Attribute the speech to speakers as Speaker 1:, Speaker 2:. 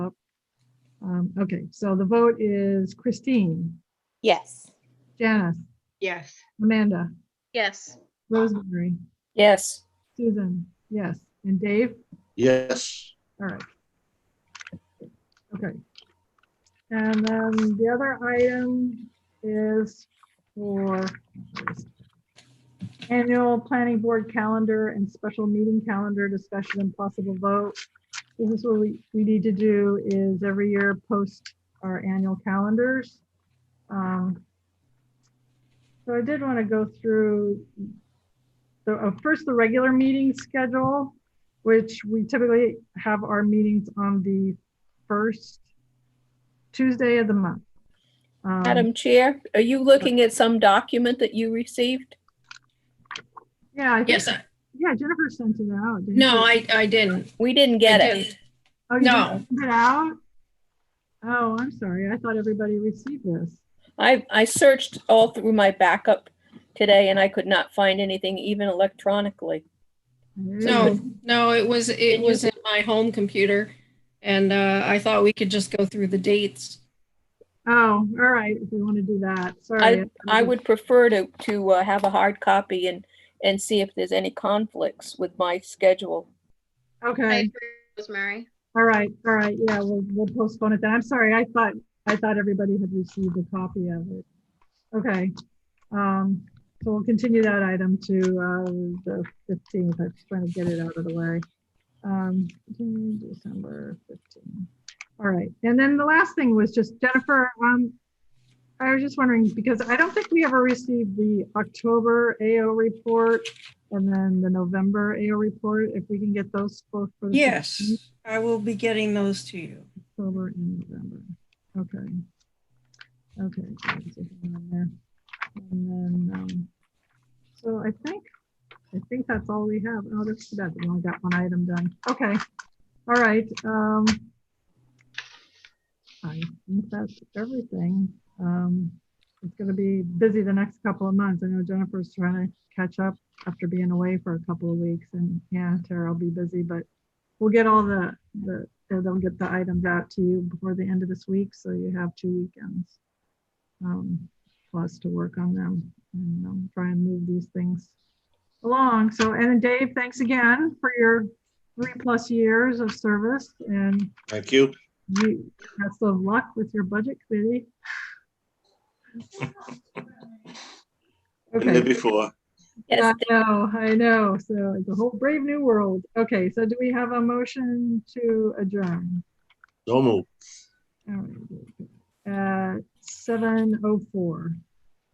Speaker 1: Um, okay, so the vote is Christine,
Speaker 2: Yes.
Speaker 1: Janice,
Speaker 3: Yes.
Speaker 1: Amanda,
Speaker 4: Yes.
Speaker 1: Rosemary,
Speaker 2: Yes.
Speaker 1: Susan, yes, and Dave?
Speaker 5: Yes,
Speaker 1: All right. Okay. And then the other item is for annual planning board calendar and special meeting calendar discussion and possible vote. This is what we, we need to do is every year post our annual calendars. Um, So I did want to go through the, uh, first, the regular meeting schedule which we typically have our meetings on the first Tuesday of the month. Um,
Speaker 2: Madam Chair, are you looking at some document that you received?
Speaker 1: Yeah, I think,
Speaker 4: Yes, I-
Speaker 1: yeah, Jennifer sent it out. didn't
Speaker 4: no,
Speaker 1: she?
Speaker 4: I, I didn't.
Speaker 2: We didn't
Speaker 4: I
Speaker 2: get it.
Speaker 4: didn't.
Speaker 1: Oh, you
Speaker 4: no.
Speaker 1: didn't Send it out? Oh, I'm sorry. I thought everybody received this.
Speaker 2: I, I searched all through my backup today and I could not find anything even electronically.
Speaker 4: No, no, it was, it was in my home computer. And uh, I thought we could just go through the dates.
Speaker 1: Oh, all right, if we want to do that, sorry.
Speaker 2: I would prefer to, to uh, have a hard copy and, and see if there's any conflicts with my schedule.
Speaker 4: I
Speaker 1: Okay,
Speaker 4: agree, Rosemary.
Speaker 1: all right, all right, yeah, we'll, we'll postpone it then. I'm sorry, I thought, I thought everybody had received a copy of it. Okay, um, so we'll continue that item to, uh, the fifteenth, I'm just trying to get it out of the way. Um, December fifteenth. All right, and then the last thing was just Jennifer, um, I was just wondering, because I don't think we ever received the October AO report and then the November AO report, if we can get those both for the.
Speaker 3: Yes,
Speaker 1: 15th,
Speaker 3: I will be getting those to you.
Speaker 1: October and November, okay. Okay. so it's in there. And then, um, so I think, I think that's all we have. Oh, that's, too bad. we only got one item done. Okay. All right. Um, I think that's everything. Um, it's going to be busy the next couple of months. I know Jennifer's trying to catch up after being away for a couple of weeks and yeah, Tara will be busy, but we'll get all the, the, they'll get the items out to you before the end of this week. So you have two weekends um, plus to work on them and um, try and move these things along. So, and then Dave, thanks again for your three plus years of service and
Speaker 5: thank you.
Speaker 1: you, best of luck with your budget committee.
Speaker 5: Been there
Speaker 1: Okay,
Speaker 5: before.
Speaker 1: I
Speaker 2: Yes,
Speaker 1: know, I know. So it's a whole brave new world. Okay, so do we have a motion to adjourn?
Speaker 5: Don't move.
Speaker 1: Um, All right. Uh, 7:04.